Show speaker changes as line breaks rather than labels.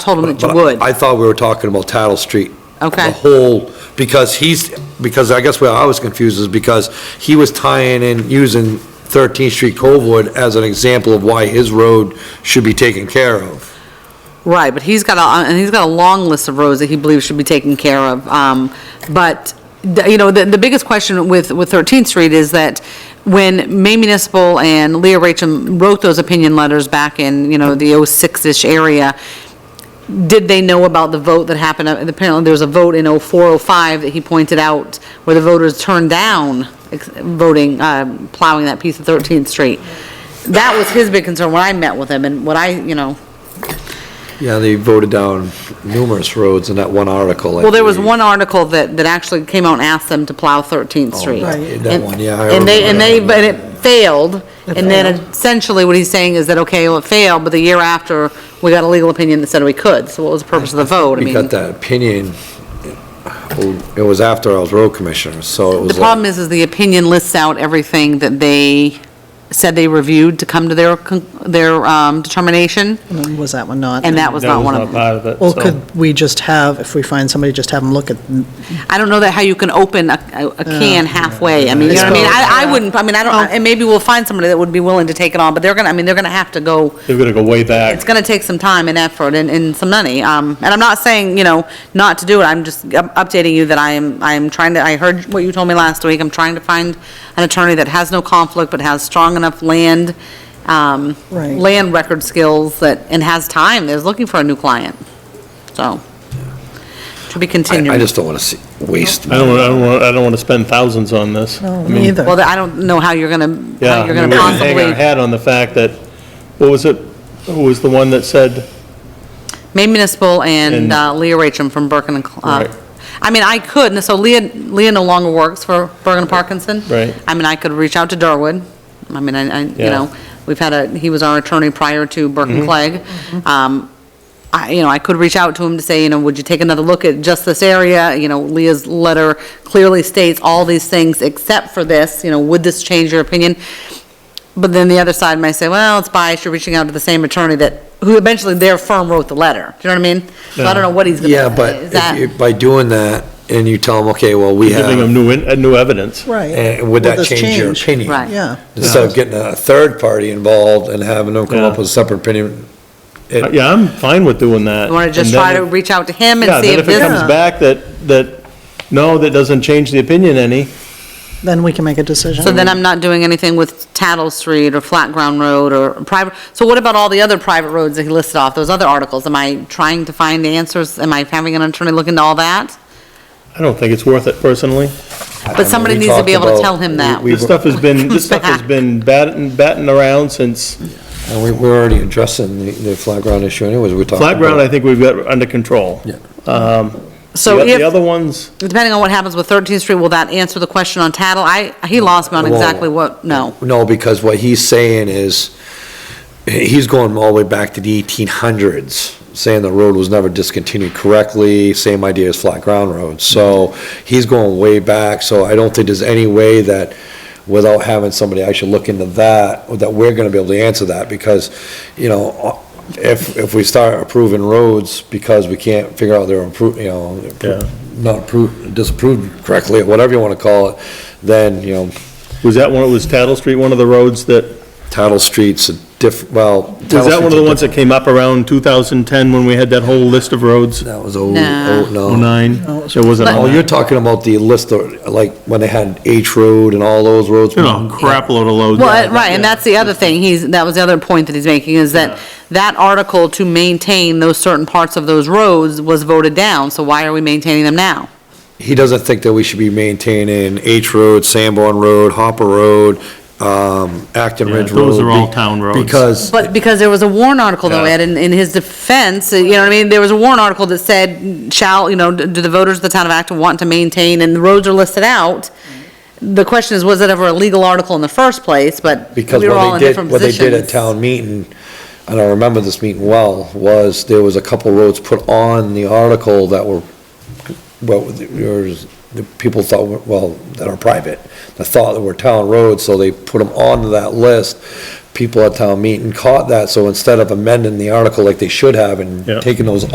told him that you
But
would.
I thought we were talking about Tattle Street. The
Okay,
whole, because he's, because I guess where I was confused is because he was tying in, using 13th Street Coldwood as an example of why his road should be taken care of.
right, but he's got a, and he's got a long list of roads that he believes should be taken care of. Um, But, the- you know, the, the biggest question with, with 13th Street is that when May Municipal and Leah Racham wrote those opinion letters back in, you know, the 06-ish area, did they know about the vote that happened? Apparently, there was a vote in 04, 05 that he pointed out where the voters turned down ex- voting, um, plowing that piece of 13th Street. That was his big concern when I met with him and what I, you know,
Yeah, they voted down numerous roads in that one article. I
well, there was
believe.
one article that, that actually came out and asked them to plow 13th Street.
Right. that
And-
one, yeah, I
And they,
remember
and they,
that.
but it failed. And then
failed.
essentially what he's saying is that, okay, well, it failed, but the year after, we got a legal opinion that said we could. So what was the purpose of the vote? I
We
mean.
got that opinion, well, it was after I was road commissioner, so it
The
was
problem
like,
is, is the opinion lists out everything that they said they reviewed to come to their, con- their um, determination,
Was that one not?
and that was not one of them.
That was not part
Well,
of it, so-
could we just have, if we find somebody, just have them look at,
I don't know that how you can open a, a a can halfway, I mean, you know what I mean? I, I wouldn't, I mean, I don't, and maybe we'll find somebody that would be willing to take it on, but they're gonna, I mean, they're gonna have to go,
They're gonna go way
it's
back.
gonna take some time and effort and, and some money, um, and I'm not saying, you know, not to do it, I'm just up- updating you that I am, I am trying to, I heard what you told me last week, I'm trying to find an attorney that has no conflict but has strong enough land, um,
Right.
land record skills that, and has time, is looking for a new client, so, to be
I
continued.
I just don't want to see, waste.
I don't, wanna- I don't, wanna- I don't wanna spend thousands on this. I
no,
mean,
me either.
Well, I don't know how you're going to,
Yeah,
how
I
you're going
mean,
to
we're gonna hang our
possibly,
hat on the fact that, what was it, who was the one that said,
May Municipal and
And-
uh, Leah Racham from Bergen and, Cl- uh,
Right.
I mean, I could, and so Leah, Leah no longer works for Bergen and Parkinson.
Right.
I mean, I could reach out to Durwood, I mean, I, I- you
Yeah. Mm-hmm.
know, we've had a, he was our attorney prior to Bergen Clegg. Um, I, you know, I could reach out to him to say, you know, would you take another look at just this area? You know, Leah's letter clearly states all these things except for this, you know, would this change your opinion? But then the other side might say, well, it's biased, you're reaching out to the same attorney that, who eventually their firm wrote the letter. Do you know what I mean? So I don't know what he's gonna,
Yeah, but
is
if
that,
you- by doing that, and you tell them, okay, well, we have.
giving them new, in- uh, new evidence?
Right.
And eh, Uh, would that
this
change your opinion?
Right.
Yeah,
Instead of getting a third party involved and having them come up
Yeah.
with a separate opinion.
Uh, Yeah, I'm fine with doing that.
you wanna just
And then
try to
if-
reach out to him
Yeah,
and see
then
if
if it
this,
comes back that, that, no, that doesn't change the opinion any,
then we can make a decision.
so then I'm not doing anything with Tattle Street or Flat Ground Road or private, so what about all the other private roads that he listed off, those other articles? Am I trying to find the answers? Am I having an attorney look into all that?
I don't think it's worth it personally.
But somebody needs to be able to tell him that.
We,
This stuff has been, this stuff has
Back.
been batting, batting around since,
and we, we're already addressing the, the flat ground issue anyways, we're talking.
flat ground, I
about-
think we've got under control. Um,
Yeah.
So
The-
if.
The other ones.
Depending on what happens with 13th Street, will that answer the question on Tattle? I, he lost me on
It won't.
exactly what, no.
No, because what he's saying is, he's going all the way back to the eighteen hundreds, saying the road was never discontinued correctly, same idea as flat ground roads. So he's going way back, so I don't think there's any way that, without having somebody actually look into that, that we're gonna be able to answer that, because, you know, if, if we start approving roads because we can't figure out they're approved, you know,
Yeah.
not approved, disapproved correctly, or whatever you wanna call it, then, you know,
Was that one, was Tattle Street one of the roads that,
Tattle Street's a diff, well.
was that one of the ones that came up around 2010 when we had that whole list of roads?
That was oh,
Nah.
oh, no.
09?
No, it was-
It wasn't
Oh,
on
you're
that.
talking about the list of, like, when they had H Road and all those roads?
You know, crap load of loads.
Well, right, and that's the other thing, he's, that was the other point that he's making, is that that article to maintain those certain parts of those roads was voted down, so why are we maintaining them now?
He doesn't think that we should be maintaining H Road, Sanborn Road, Hopper Road, um, Acton
Yeah,
Ridge Road.
those are all
be-
town roads.
Because,
But because there was a warrant article though,
Yeah.
Ed, in, in his defense, you know what I mean? There was a warrant article that said, shall, you know, do the voters of the town of Acton want to maintain, and the roads are listed out. The question is, was it ever a legal article in the first place, but we
because
were all
what
in
they did,
different
what they
positions.
did at town meeting, and I remember this meeting well, was there was a couple roads put on the article that were, well, yours, the people thought, were- well, that are private, that thought that were town roads, so they put them onto that list. People at town meeting caught that, so instead of amending the article like they should have and
Yeah.
taking those